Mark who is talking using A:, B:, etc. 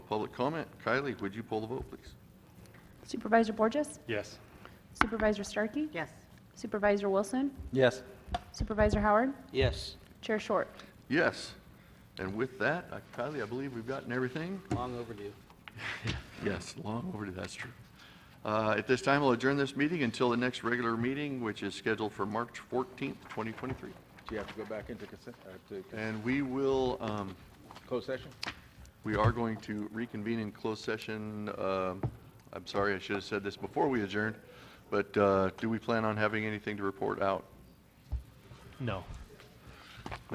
A: public comment. Kylie, would you pull the vote, please?
B: Supervisor Borges?
C: Yes.
B: Supervisor Starkey?
D: Yes.
B: Supervisor Wilson?
E: Yes.
B: Supervisor Howard?
E: Yes.
B: Chair Short?
A: Yes. And with that, uh, Kylie, I believe we've gotten everything.
E: Long overdue.
A: Yes, long overdue, that's true. Uh, At this time, I'll adjourn this meeting until the next regular meeting, which is scheduled for March 14th, 2023.
F: Do you have to go back into consent, uh, to
A: And we will, um,
F: closed session?
A: we are going to reconvene in closed session. um, I'm sorry, I should have said this before we adjourned, but uh, do we plan on having anything to report out?
C: No.